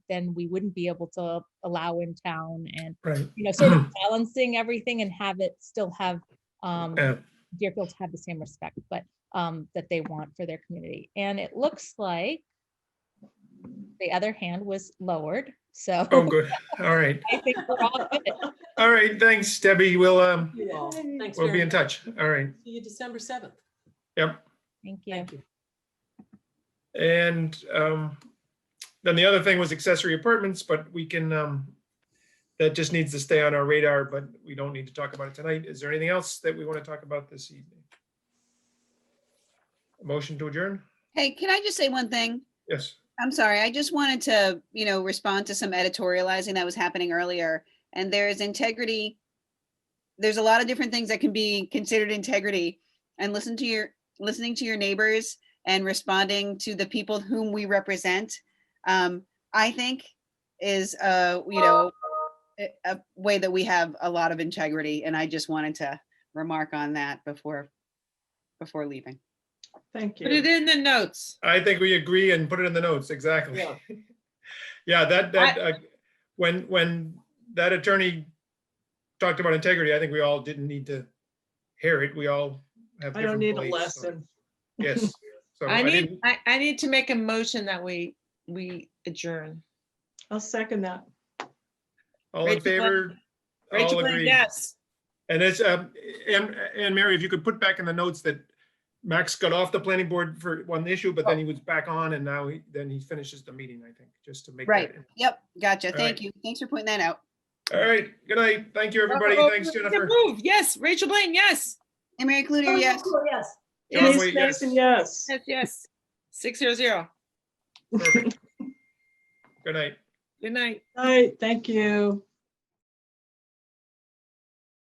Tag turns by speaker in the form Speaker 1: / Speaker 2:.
Speaker 1: then we wouldn't be able to allow in town and,
Speaker 2: right.
Speaker 1: you know, sort of balancing everything and have it still have, um,
Speaker 2: Yeah,
Speaker 1: Deerfield have the same respect, but, um, that they want for their community. And it looks like the other hand was lowered, so
Speaker 2: oh, good. All right.
Speaker 1: I think we're all good.
Speaker 2: All right, thanks, Debbie. We'll, um,
Speaker 3: You all. Thanks
Speaker 2: we'll be
Speaker 3: very
Speaker 2: in
Speaker 3: much.
Speaker 2: touch. All right,
Speaker 3: See you December 7th.
Speaker 2: yep.
Speaker 1: Thank you.
Speaker 3: Thank you.
Speaker 2: And um, then the other thing was accessory apartments, but we can, um, that just needs to stay on our radar, but we don't need to talk about it tonight. Is there anything else that we want to talk about this evening? Motion to adjourn?
Speaker 4: Hey, can I just say one thing?
Speaker 2: Yes.
Speaker 4: I'm sorry, I just wanted to, you know, respond to some editorializing that was happening earlier. And there is integrity. There's a lot of different things that can be considered integrity. And listen to your, listening to your neighbors and responding to the people whom we represent, um, I think is, uh, you know, a, a way that we have a lot of integrity. And I just wanted to remark on that before, before leaving.
Speaker 5: Thank
Speaker 6: Put it
Speaker 5: you.
Speaker 6: in the notes.
Speaker 2: I think we agree and put it in the notes, exactly.
Speaker 3: Yeah.
Speaker 2: Yeah, that, that, uh, when, when that attorney talked about integrity, I think we all didn't need to hear it. We all have
Speaker 5: I
Speaker 2: different
Speaker 5: don't need a
Speaker 2: beliefs, so-
Speaker 5: lesson.
Speaker 2: Yes. So
Speaker 6: I need,
Speaker 2: didn't-
Speaker 6: I, I need to make a motion that we, we adjourn.
Speaker 5: I'll second that.
Speaker 2: All in
Speaker 6: Rachel Blaine-
Speaker 2: favor?
Speaker 6: Rachel
Speaker 2: All
Speaker 6: Blaine,
Speaker 2: agree.
Speaker 6: Yes.
Speaker 2: And it's, um, and, and Mary, if you could put back in the notes that Max got off the planning board for one issue, but then he was back on and now he, then he finishes the meeting, I think, just to make. that-
Speaker 4: Right. Yep, gotcha.
Speaker 2: right.
Speaker 4: Thank you. Thanks for pointing that out.
Speaker 2: All right, good night. Thank you, everybody.
Speaker 6: Oh,
Speaker 2: Thanks,
Speaker 6: we can
Speaker 2: Jennifer.
Speaker 6: Move, yes, Rachel Blaine, yes,
Speaker 4: And Mary Cludier, yes.
Speaker 3: Yes.
Speaker 2: John
Speaker 6: Yes,
Speaker 2: Waite,
Speaker 5: Denise
Speaker 2: yes.
Speaker 5: Mason, yes.
Speaker 6: yes, yes, six zero zero,
Speaker 2: Perfect. Good night.
Speaker 6: good night.
Speaker 5: All right, thank you.